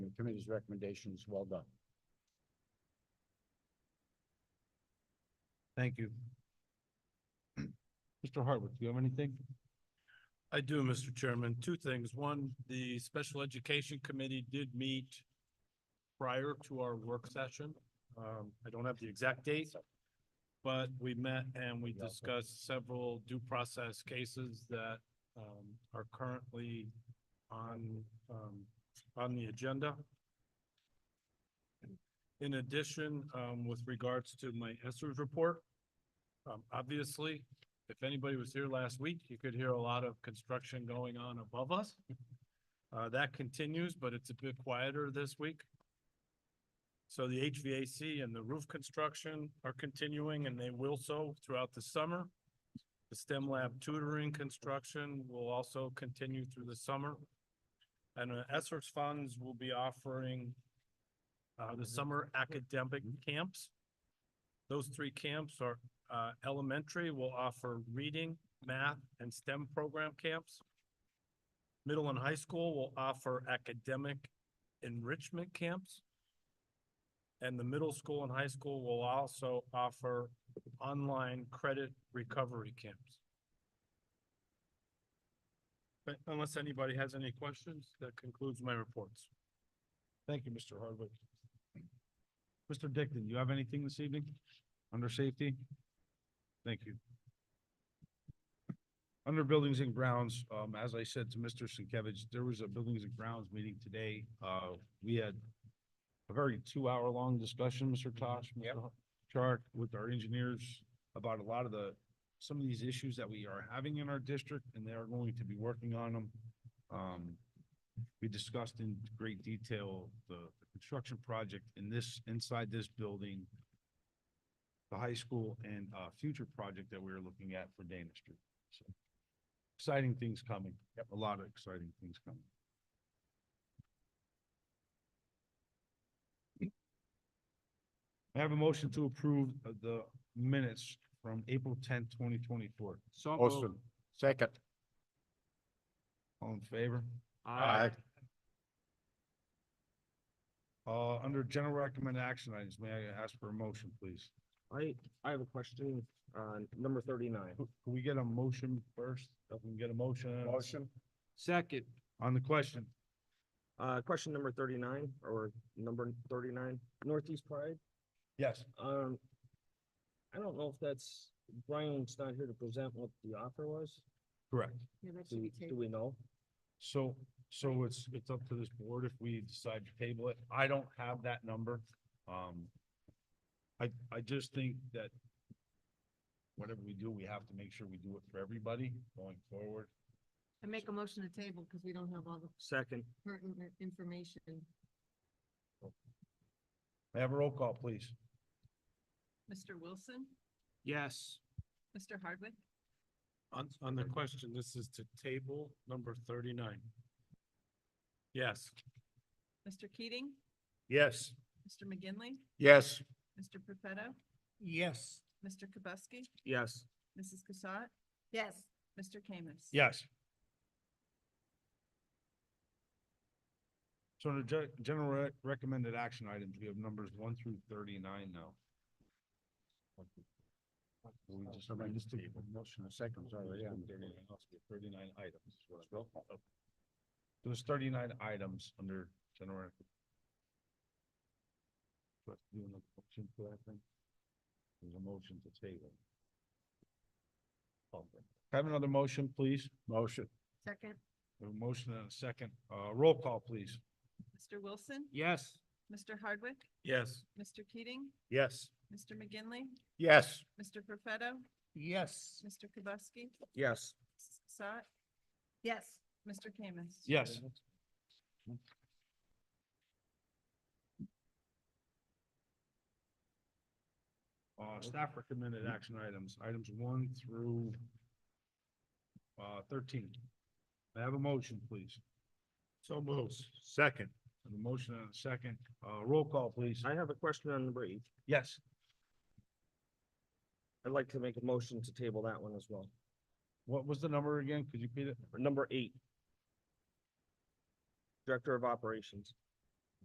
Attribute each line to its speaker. Speaker 1: committee's recommendations. Well done.
Speaker 2: Thank you. Mr. Hartwick, do you have anything?
Speaker 3: I do, Mr. Chairman. Two things. One, the Special Education Committee did meet prior to our work session. Um, I don't have the exact date, but we met and we discussed several due process cases that um, are currently on, um, on the agenda. In addition, um, with regards to my Esser's report, um, obviously, if anybody was here last week, you could hear a lot of construction going on above us. Uh, that continues, but it's a bit quieter this week. So the HVAC and the roof construction are continuing and they will so throughout the summer. The STEM lab tutoring construction will also continue through the summer. And uh, Esser's funds will be offering uh, the summer academic camps. Those three camps are uh, elementary will offer reading, math, and STEM program camps. Middle and high school will offer academic enrichment camps. And the middle school and high school will also offer online credit recovery camps. But unless anybody has any questions, that concludes my reports.
Speaker 2: Thank you, Mr. Hardwick. Mr. Dickon, you have anything this evening under safety? Thank you. Under buildings and grounds, um, as I said to Mr. Sienkiewicz, there was a buildings and grounds meeting today. Uh, we had a very two-hour-long discussion, Mr. Tosh, Mr. Chark, with our engineers about a lot of the, some of these issues that we are having in our district, and they are going to be working on them. Um, we discussed in great detail the the construction project in this, inside this building, the high school and uh future project that we are looking at for Dana Street. So Exciting things coming. Yep. A lot of exciting things coming. I have a motion to approve uh, the minutes from April tenth, twenty twenty-four.
Speaker 3: So
Speaker 1: Awesome. Second.
Speaker 2: All in favor?
Speaker 1: Aye.
Speaker 2: Uh, under general recommend action items, may I ask for a motion, please?
Speaker 4: I, I have a question on number thirty-nine.
Speaker 2: Can we get a motion first? If we can get a motion
Speaker 1: Motion.
Speaker 4: Second.
Speaker 2: on the question,
Speaker 4: Uh, question number thirty-nine or number thirty-nine, Northeast Pride.
Speaker 2: yes.
Speaker 4: Um, I don't know if that's, Brian's not here to present what the offer was.
Speaker 2: Correct.
Speaker 5: Yeah, that
Speaker 4: Do,
Speaker 5: should be
Speaker 4: we- do
Speaker 5: taken.
Speaker 4: we know?
Speaker 2: So, so it's, it's up to this board if we decide to table it. I don't have that number. Um, I, I just think that whatever we do, we have to make sure we do it for everybody going forward.
Speaker 5: I make a motion to table because we don't have all the
Speaker 4: Second.
Speaker 5: pertinent information.
Speaker 2: May I have a roll call, please?
Speaker 5: Mr. Wilson,
Speaker 4: Yes.
Speaker 5: Mr. Hardwick,
Speaker 3: On, on the question, this is to table number thirty-nine. Yes.
Speaker 5: Mr. Keating,
Speaker 1: Yes.
Speaker 5: Mr. McGinley,
Speaker 1: Yes.
Speaker 5: Mr. Profetto,
Speaker 3: Yes.
Speaker 5: Mr. Kubuski,
Speaker 4: Yes.
Speaker 5: Mrs. Cassatt,
Speaker 6: Yes,
Speaker 5: Mr. Kamis.
Speaker 2: Yes. So under gen- general rec- recommended action items, we have numbers one through thirty-nine now.
Speaker 1: We just arranged the motion and seconds already on.
Speaker 2: Thirty-nine items. is what I wrote. There's thirty-nine items under general. rec. Do I have to do another motion for that thing? There's a motion to table. Okay. Have another motion, please.
Speaker 1: Motion.
Speaker 5: Second.
Speaker 2: A motion and a second. Uh, roll call, please.
Speaker 5: Mr. Wilson,
Speaker 3: Yes.
Speaker 5: Mr. Hardwick,
Speaker 3: Yes.
Speaker 5: Mr. Keating,
Speaker 1: Yes.
Speaker 5: Mr. McGinley,
Speaker 1: Yes.
Speaker 5: Mr. Profetto,
Speaker 3: Yes.
Speaker 5: Mr. Kubuski,
Speaker 4: Yes.
Speaker 5: Mrs. Cassatt,
Speaker 6: yes,
Speaker 5: Mr. Kamis.
Speaker 2: Yes. Uh, staff recommended action items, items one through uh, thirteen. May I have a motion, please.
Speaker 3: So moves. Second.
Speaker 2: I have A motion and a second. Uh, roll call, please.
Speaker 4: I have a question on number eight.
Speaker 2: Yes.
Speaker 4: I'd like to make a motion to table that one as well.
Speaker 2: What was the number again? Could you repeat it?
Speaker 4: Number eight. Director of Operations.